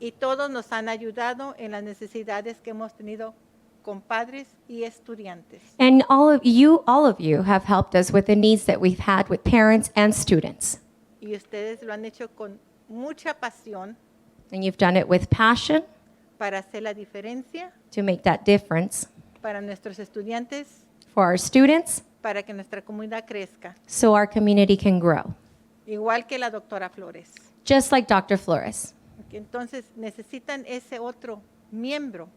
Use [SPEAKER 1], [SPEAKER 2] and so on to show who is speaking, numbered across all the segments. [SPEAKER 1] y todos nos han ayudado en las necesidades que hemos tenido con padres y estudiantes.
[SPEAKER 2] And all of you, all of you have helped us with the needs that we've had with parents and students.
[SPEAKER 1] Y ustedes lo han hecho con mucha pasión
[SPEAKER 2] And you've done it with passion
[SPEAKER 1] para hacer la diferencia
[SPEAKER 2] to make that difference
[SPEAKER 1] para nuestros estudiantes,
[SPEAKER 2] for our students
[SPEAKER 1] para que nuestra comunidad crezca,
[SPEAKER 2] so our community can grow,
[SPEAKER 1] igual que la doctora Flores.
[SPEAKER 2] just like Dr. Flores.
[SPEAKER 1] Entonces necesitan ese otro miembro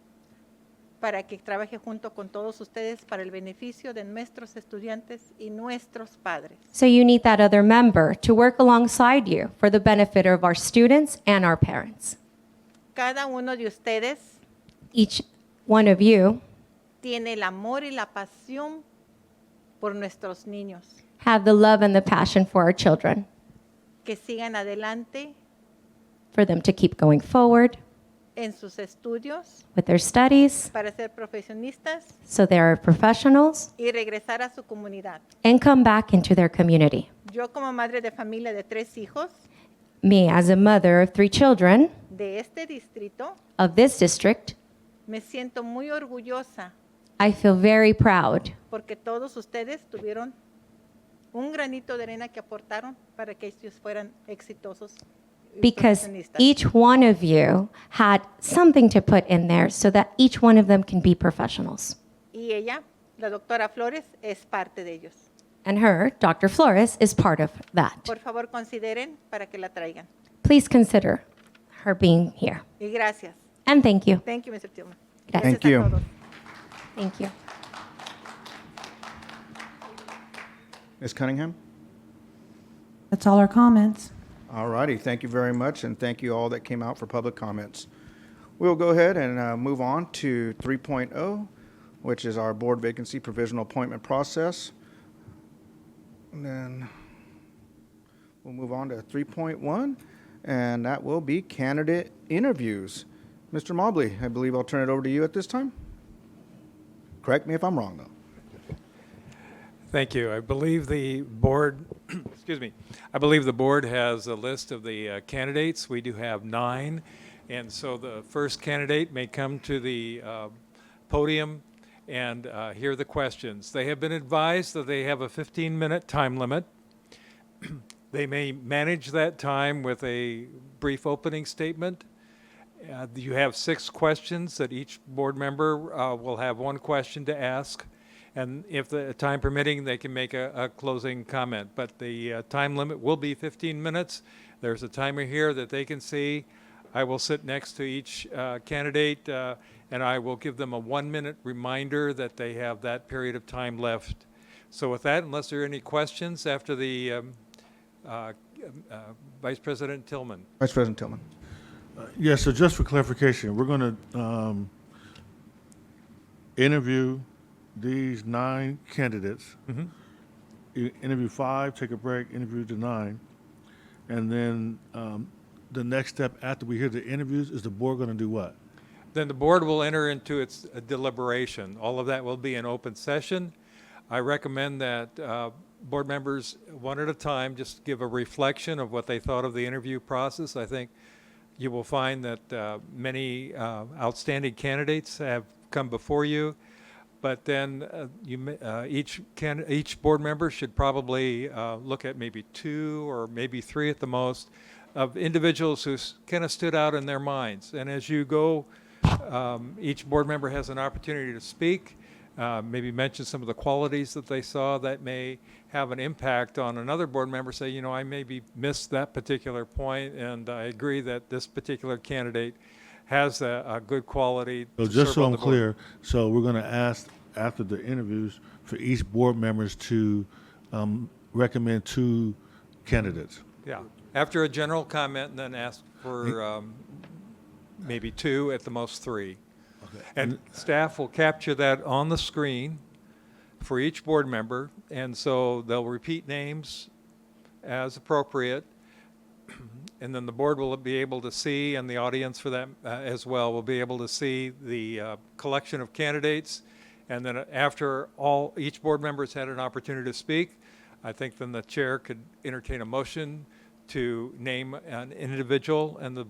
[SPEAKER 1] para que trabaje junto con todos ustedes para el beneficio de nuestros estudiantes y nuestros padres.
[SPEAKER 2] So you need that other member to work alongside you for the benefit of our students and our parents.
[SPEAKER 1] Cada uno de ustedes
[SPEAKER 2] Each one of you
[SPEAKER 1] tiene el amor y la pasión por nuestros niños,
[SPEAKER 2] have the love and the passion for our children,
[SPEAKER 1] que sigan adelante
[SPEAKER 2] for them to keep going forward
[SPEAKER 1] en sus estudios
[SPEAKER 2] with their studies
[SPEAKER 1] para ser profesionistas
[SPEAKER 2] so they are professionals
[SPEAKER 1] y regresar a su comunidad.
[SPEAKER 2] and come back into their community.
[SPEAKER 1] Yo como madre de familia de tres hijos
[SPEAKER 2] Me, as a mother of three children
[SPEAKER 1] de este distrito,
[SPEAKER 2] of this district,
[SPEAKER 1] me siento muy orgullosa
[SPEAKER 2] I feel very proud
[SPEAKER 1] porque todos ustedes tuvieron un granito de arena que aportaron para que ellos fueran exitosos. y
[SPEAKER 2] because
[SPEAKER 1] profesionistas.
[SPEAKER 2] each one of you had something to put in there so that each one of them can be professionals.
[SPEAKER 1] y ella, la doctora Flores, es parte de ellos.
[SPEAKER 2] And her, Dr. Flores, is part of that.
[SPEAKER 1] Por favor, consideren para que la traigan.
[SPEAKER 2] Please consider her being here.
[SPEAKER 1] Y gracias.
[SPEAKER 2] And thank you.
[SPEAKER 1] Thank you, Mr. Tillman.
[SPEAKER 2] Gracias.
[SPEAKER 1] Gracias
[SPEAKER 3] Thank you.
[SPEAKER 1] a todos.
[SPEAKER 2] Thank you.
[SPEAKER 3] Ms. Cunningham?
[SPEAKER 4] That's all our comments.
[SPEAKER 3] All righty, thank you very much, and thank you all that came out for public comments. We'll go ahead and uh, move on to 3.0, which is our board vacancy provisional appointment process. And then we'll move on to 3.1, and that will be candidate interviews. Mr. Mobley, I believe I'll turn it over to you at this time. Correct me if I'm wrong, though.
[SPEAKER 5] Thank you. I believe the board, excuse me, I believe the board has a list of the uh, candidates. We do have nine. And so the first candidate may come to the uh, podium and uh, hear the questions. They have been advised that they have a 15-minute time limit. They may manage that time with a brief opening statement. Uh, You have six questions that each board member uh, will have one question to ask, and if the time permitting, they can make a a closing comment. But the uh, time limit will be 15 minutes. There's a timer here that they can see. I will sit next to each uh, candidate, uh, and I will give them a one-minute reminder that they have that period of time left. So with that, unless there are any questions after the um, uh, uh, Vice President Tillman.
[SPEAKER 3] Vice President Tillman.
[SPEAKER 6] Yeah, so just for clarification, we're going to um, interview these nine candidates.
[SPEAKER 5] Mm-hmm.
[SPEAKER 6] You Interview five, take a break, interview the nine. And then um, the next step after we hear the interviews is the board going to do what?
[SPEAKER 5] Then the board will enter into its uh, deliberation. All of that will be in open session. I recommend that uh, board members, one at a time, just give a reflection of what they thought of the interview process. I think you will find that uh, many uh, outstanding candidates have come before you, but then uh, you, may- uh, each can, each board member should probably uh, look at maybe two or maybe three at the most of individuals who kind of stood out in their minds. And as you go um, Each board member has an opportunity to speak, uh, maybe mention some of the qualities that they saw that may have an impact on another board member, say, you know, I maybe missed that particular point, and I agree that this particular candidate has a, a good quality.
[SPEAKER 6] So
[SPEAKER 5] to
[SPEAKER 6] just
[SPEAKER 5] serve
[SPEAKER 6] so
[SPEAKER 5] on
[SPEAKER 6] I'm
[SPEAKER 5] the board."
[SPEAKER 6] clear, so we're going to ask after the interviews for each board members to um, recommend two candidates.
[SPEAKER 5] Yeah, after a general comment, and then ask for um, maybe two, at the most three. And staff will capture that on the screen for each board member, and so they'll repeat names as appropriate, and then the board will be able to see, and the audience for that uh, as well, will be able to see the uh, collection of candidates. And then after all, each board member's had an opportunity to speak, I think then the chair could entertain a motion to name an individual, and the